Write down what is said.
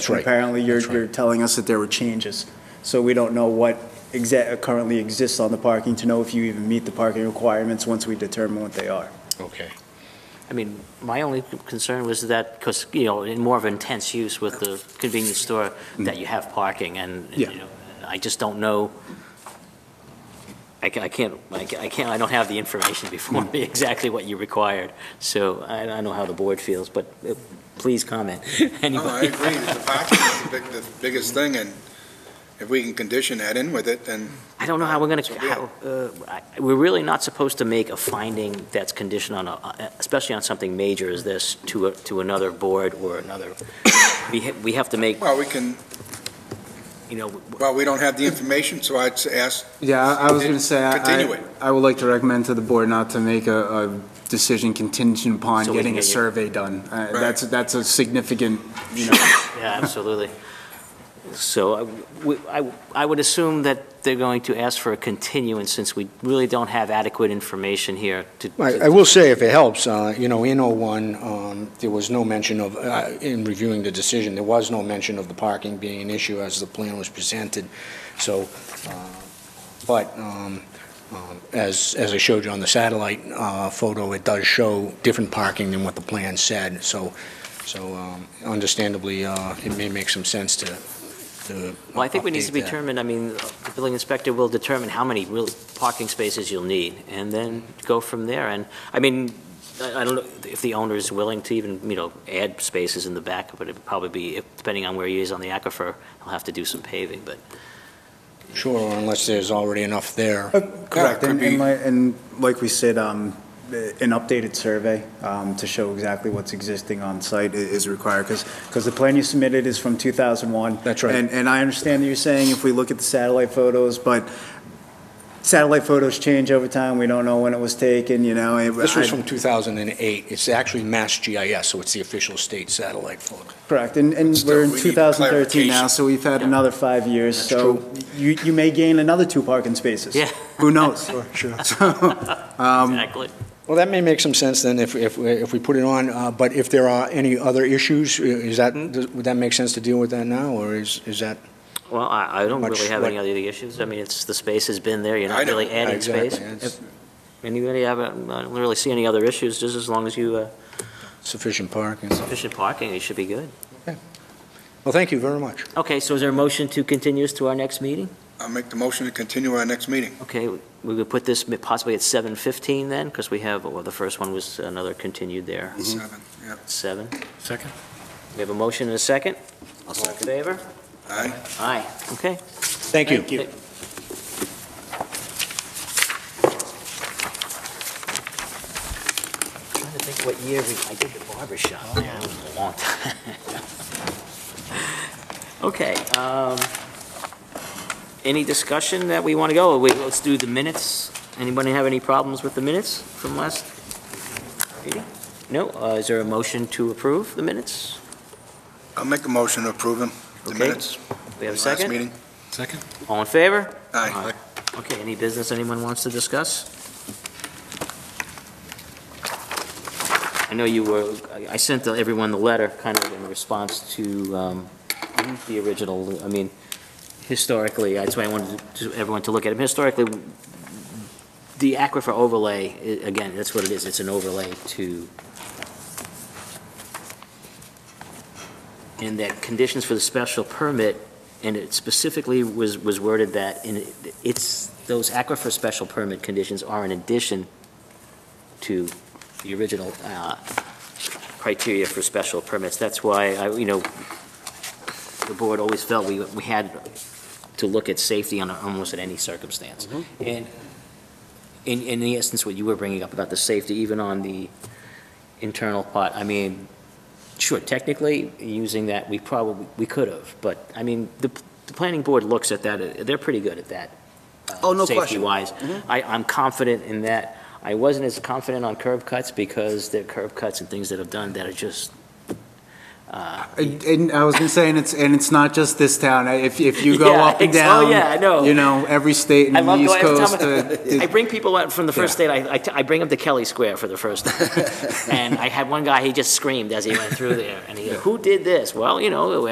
That's right. Apparently, you're, That's right. you're telling us that there were changes. So we don't know what exact, currently exists on the parking to know if you even meet the parking requirements once we determine what they are. Okay. I mean, my only concern was that, because, you know, in more of intense use with the convenience store, that you have parking, and, you Yeah. know, I just don't know, I ca- I can't, I ca- I can't, I don't have the information before me exactly what you required, so I I don't know how the board feels, but uh, please comment. No, I Anybody? agree, that the parking is the big, the biggest thing, and if we can condition that in with it, then, I don't know how we're going So, yeah. to, we're really not supposed to make a finding that's conditioned on, a- uh, especially on something major as this, to, a- to another board or another, we ha- we have to make, well, we can, you know, w- well, we don't have the information, so I'd ask, Yeah, I I was going to say, I- Continue it. I, I would like to recommend to the board not to make a, a decision contingent upon So we can getting a get you- survey done. Uh, That's, that's a significant, you know, Yeah, absolutely. So I w- I- I would assume that they're going to ask for a continuance since we really don't have adequate information here to. I I will say, if it helps, uh, you know, in '01, um, there was no mention of, uh, in reviewing the decision, there was no mention of the parking being an issue as the plan was presented, so, uh, but um, um, as as I showed you on the satellite uh, photo, it does show different parking than what the plan said, so so um, understandably, uh, it may make some sense to to Well, I think we need to update that. determine, I mean, the building inspector will determine how many real parking spaces you'll need and then go from there. And, I mean, I I don't know if the owner is willing to even, you know, add spaces in the back, but it'd probably be, if- depending on where he is on the aquifer, he'll have to do some paving, but. Sure, unless there's already enough there. Oh, Correct, could and, and be- like, and like we said, um, an updated survey, um, to show exactly what's existing on site i- is required, because, the plan you submitted is from two thousand one. That's right. And, and I understand that you're saying if we look at the satellite photos, but satellite photos change over time, we don't know when it was taken, you know. it- This was I- from 2008. It's actually Mass GIS, so it's the official state satellite photo. Correct, and, and Still, we're in we need 2013 now, clarification. so we've had another five years, That's so you, you may gain another two parking spaces. Yeah. Who knows? Sure. Um, Um, Exactly. Well, that may make some sense then if, if, if we put it on, uh, but if there are any other issues, i- is that, does- would that make sense to deal with that now, or is, is that? Well, I, I don't Much really have any like- other issues. I mean, it's, the space has been there, you're I not know. really adding Exactly, space. it's Anybody have, a- I don't really see any other issues, just as long as you, uh, Sufficient parking. efficient parking, you should be good. Well, thank you very much. Okay, so is there a motion to continue this to our next meeting? I'll make the motion to continue our next meeting. Okay, we would put this possibly at 7:15 then, because we have, well, the first one was another continued there, Seven, yeah. seven. Second. We have a motion and a second? All in second. favor? Aye. Aye, okay. Thank you. you. Trying to think what year we, I did the barber shop. It was a long time. Okay, um, any discussion that we want to go? Wait, let's do the minutes. Anybody have any problems with the minutes from last meeting? No, uh, is there a motion to approve the minutes? I'll make a motion to approve them, the Okay. minutes. We have a Last second? meeting. All in favor? Aye. Okay, any business anyone wants to discuss? I know you were, I- I sent the- everyone the letter kind of in response to um, the original, I mean, historically, that's why I wanted to- everyone to look at it. Historically, the aquifer overlay, i- again, that's what it is, it's an overlay to, and that conditions for the special permit and it specifically was, was worded that in, it's, those aquifer special permit conditions are in addition to the original, uh, criteria for special permits. That's why I, you know, the board always felt we, we had to look at safety on almost at any circumstance. Mm-hmm. And in, in the instance what you were bringing up about the safety, even on the internal part, I mean, Sure, technically, using that, we probably, we could have, but, I mean, the, the planning board looks at that, uh, they're pretty good at that. uh, Oh, no question. Mm-hmm. Safety-wise. I, I'm confident in that. I wasn't as confident on curb cuts because there are curb cuts and things that have done that are just, uh, And and I was gonna say, and it's, and it's not just this town. I- If, if you go Yeah, up and ex- oh, down. yeah, I know. You know, every state in I the love East going, every Coast. time uh, I, I it- bring people out from the first Yeah. state, I, I t- I bring up the Kelly Square for the first time. And I had one guy, he just screamed as he went through there, and he, goes, who did this? Well, you know,